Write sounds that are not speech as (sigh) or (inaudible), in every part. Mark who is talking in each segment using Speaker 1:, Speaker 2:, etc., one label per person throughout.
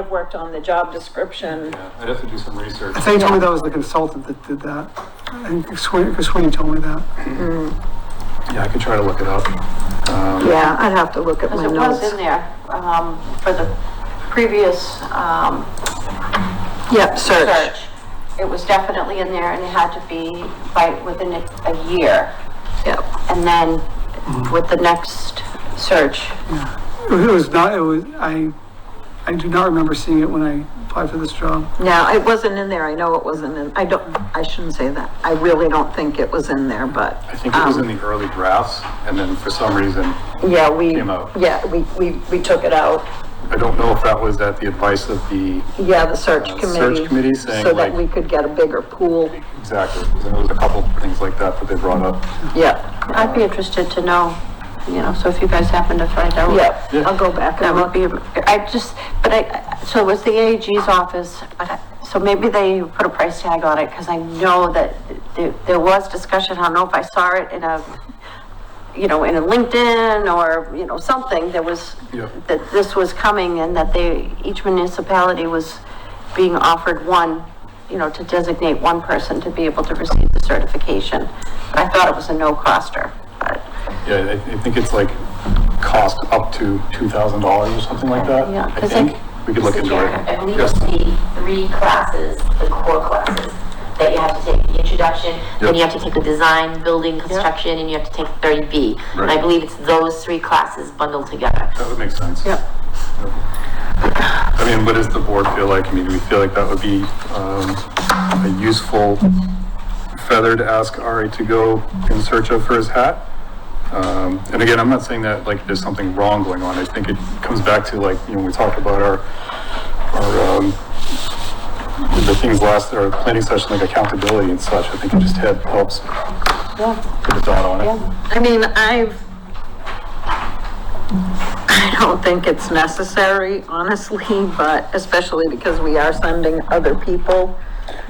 Speaker 1: I've worked on the job description.
Speaker 2: Yeah, I'd have to do some research.
Speaker 3: I think he told me that was the consultant that did that. I think Sweeney, Sweeney told me that.
Speaker 2: Yeah, I could try to look it up. Um,
Speaker 4: Yeah, I'd have to look at my
Speaker 5: Because it was in
Speaker 4: notes.
Speaker 5: there, um, for the previous, um,
Speaker 4: Yep, search.
Speaker 5: search. It was definitely in there and it had to be by, within a a year.
Speaker 4: Yep.
Speaker 5: And then with the next search,
Speaker 3: It was- it was not, it was, I, I do not remember seeing it when I applied for this job.
Speaker 4: Now, it wasn't in there. I know it wasn't in, I don't, I shouldn't say that. I really don't think it was in there, but.
Speaker 2: I think it was
Speaker 4: um,
Speaker 2: in the early drafts, and then for some reason,
Speaker 4: Yeah, we,
Speaker 2: Came out.
Speaker 4: yeah, we, we, we took it out.
Speaker 2: I don't know if that was at the advice of the,
Speaker 4: Yeah, the search
Speaker 2: Uh,
Speaker 4: committee.
Speaker 2: search committee saying,
Speaker 4: So that
Speaker 2: like-
Speaker 4: we could get a bigger pool.
Speaker 2: exactly, because there was a couple things like that that they brought up.
Speaker 4: Yeah,
Speaker 5: I'd be interested to know, you know, so if you guys happen to find out.
Speaker 4: yeah.
Speaker 2: Yeah.
Speaker 4: I'll go back
Speaker 5: That
Speaker 4: and
Speaker 5: would
Speaker 4: look.
Speaker 5: be, I just, but I, so it was the AG's office, but, I- so maybe they put a price tag on it, because I know that there, there was discussion, I don't know if I saw it in a, you know, in a LinkedIn or, you know, something, there was,
Speaker 2: Yeah.
Speaker 5: that this was coming and that they, each municipality was being offered one, you know, to designate one person to be able to receive the certification. But I thought it was a no-coster, but,
Speaker 2: Yeah, I, I think it's like cost up to two thousand dollars or something like that.
Speaker 5: Yeah,
Speaker 2: I
Speaker 5: 'cause
Speaker 2: think,
Speaker 5: like-
Speaker 2: we could look
Speaker 6: Mr.
Speaker 2: into
Speaker 6: Chairman, I
Speaker 2: it.
Speaker 6: believe it's
Speaker 2: Yes,
Speaker 6: the three classes, the core classes, that you have to take, the introduction, then you
Speaker 2: Yep.
Speaker 6: have to take the design, building, construction, and you have to take thirty B. And I
Speaker 2: Right.
Speaker 6: believe it's those three classes bundled together.
Speaker 2: that would make sense.
Speaker 4: Yep.
Speaker 2: I mean, what does the board feel like? I mean, do we feel like that would be, um, a useful feather to ask Ari to go in search of for his hat? Um, and again, I'm not saying that like there's something wrong going on. I think it comes back to like, you know, we talked about our, our, um, the things last, our planning session, like accountability and such. I think it just had, helps put a dot on it.
Speaker 4: I mean, I've, I don't think it's necessary, honestly, but especially because we are sending other people.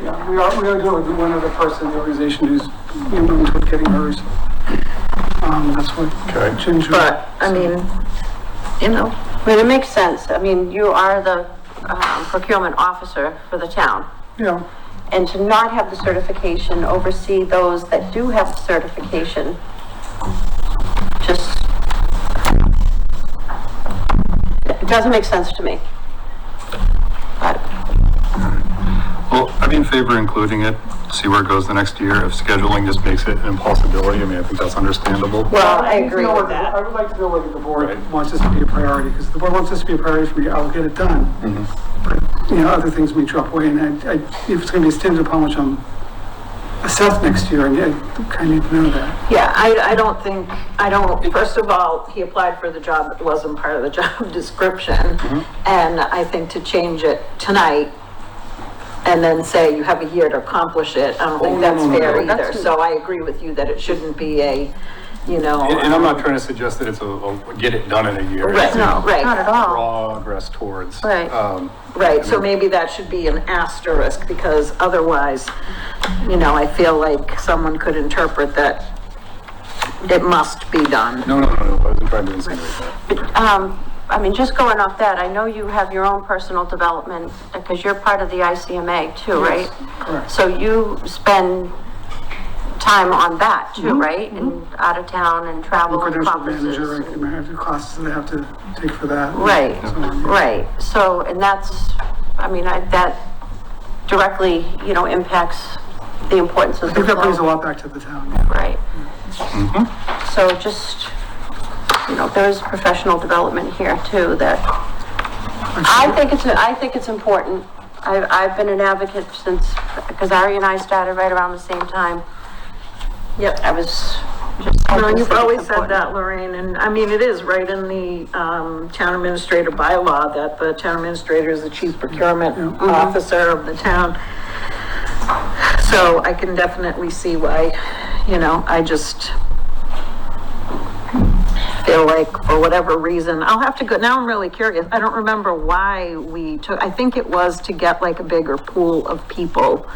Speaker 3: Yeah, we are, we are doing with one other person in the organization who's moving toward getting hers. Um, that's what
Speaker 2: Okay.
Speaker 3: Ginger.
Speaker 4: But, I mean, you know,
Speaker 5: I mean, it makes sense, I mean, you are the um, procurement officer for the town.
Speaker 3: Yeah,
Speaker 5: And to not have the certification, oversee those that do have the certification, just, it doesn't make sense to me. But,
Speaker 2: Well, I'd be in favor of including it, see where it goes the next year. If scheduling just makes it an impossibility, I mean, I think that's understandable.
Speaker 4: well, Uh, I agree
Speaker 3: No,
Speaker 4: with
Speaker 3: I-
Speaker 4: that.
Speaker 3: I would like to know whether the board wants this to be a priority, because if the board wants this to be a priority for me, I'll get it done. But, you know, other things may drop away, and I, I, if it's gonna be stinted upon which I'm assessed next year, and I kind of need to know that.
Speaker 4: Yeah, I, I don't think, I don't, first of all, he applied for the job that wasn't part of the (laughs) job description.
Speaker 2: Mm-hmm.
Speaker 4: And I think to change it tonight and then say you have a year to accomplish it, I don't
Speaker 2: Oh,
Speaker 4: think
Speaker 2: no,
Speaker 4: that's
Speaker 2: no, no,
Speaker 4: fair
Speaker 2: no,
Speaker 4: either.
Speaker 2: that's-
Speaker 4: So I agree with you that it shouldn't be a, you know.
Speaker 2: And and I'm not trying to suggest that it's a, a get it done in a year.
Speaker 4: Right,
Speaker 2: It's a
Speaker 4: no, right.
Speaker 5: not at all.
Speaker 2: Progress towards.
Speaker 5: Right.
Speaker 2: um,
Speaker 4: Right, so maybe that should be an asterisk, because otherwise, you know, I feel like someone could interpret that it must be done.
Speaker 2: No, no, no, no, I wasn't trying to insinuate that.
Speaker 5: um, I mean, just going off that, I know you have your own personal development, because you're part of the ICMA too, right?
Speaker 3: correct.
Speaker 5: So you spend time on that too, right? And out of town and travel and
Speaker 3: Credential
Speaker 5: conferences.
Speaker 3: Mm-hmm. manager, I can have the classes that I have to take for that.
Speaker 5: Right,
Speaker 3: So, yeah.
Speaker 5: right, so, and that's, I mean, I, that directly, you know, impacts the importance
Speaker 3: I
Speaker 5: of the
Speaker 3: think that brings a
Speaker 5: flow,
Speaker 3: lot back to the town, yeah.
Speaker 5: right? So just, you know, there is professional development here too, that, I think it's, I think it's important. I, I've been an advocate since, because Ari and I started right around the same time.
Speaker 4: Yep.
Speaker 5: I was just. I just
Speaker 4: No, you've
Speaker 5: think it's
Speaker 4: always said
Speaker 5: important.
Speaker 4: that, Lorraine, and I mean, it is right in the, um, town administrator bylaw that the town administrator is the chief procurement
Speaker 5: Mm-hmm.
Speaker 4: officer of the town. So I can definitely see why, you know, I just feel like for whatever reason, I'll have to go, now I'm really curious. I don't remember why we took, I think it was to get like a bigger pool of people.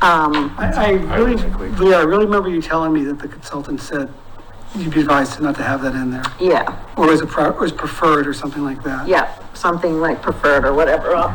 Speaker 4: Um,
Speaker 3: I, I really,
Speaker 2: agree.
Speaker 3: Leah, I really remember you telling me that the consultant said you'd be advised to not to have that in there,
Speaker 4: yeah,
Speaker 3: or as a, pri- or as preferred or something like that.
Speaker 4: yeah, something like preferred or whatever. I'll-